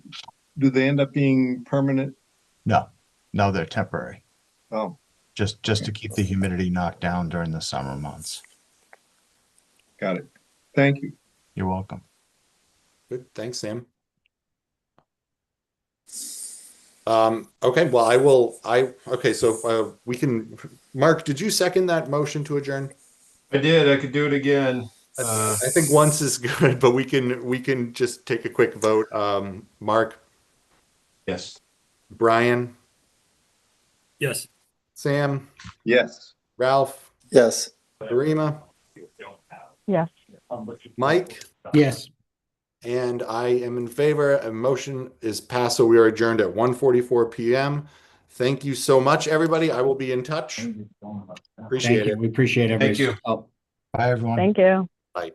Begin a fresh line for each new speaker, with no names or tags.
do they end up being permanent?
No, no, they're temporary,
Oh,
just, just to keep the humidity knocked down during the summer months.
got it. Thank you.
You're welcome.
Good, thanks, Sam. Um, okay, well, I will, I, okay, so, uh, we can, Mark, did you second that motion to adjourn?
I did. I could do it again.
I
Uh,
I think once is good, but we can, we can just take a quick vote. Um, Mark,
Yes.
Brian,
Yes.
Sam,
Yes.
Ralph,
Yes.
Karima,
Yes.
Mike,
Yes.
and I am in favor. A motion is passed, so we are adjourned at one forty-four PM. Thank you so much, everybody. I will be in touch. Appreciate it.
Thank you. We appreciate everybody's
you.
help.
Bye, everyone.
Thank you.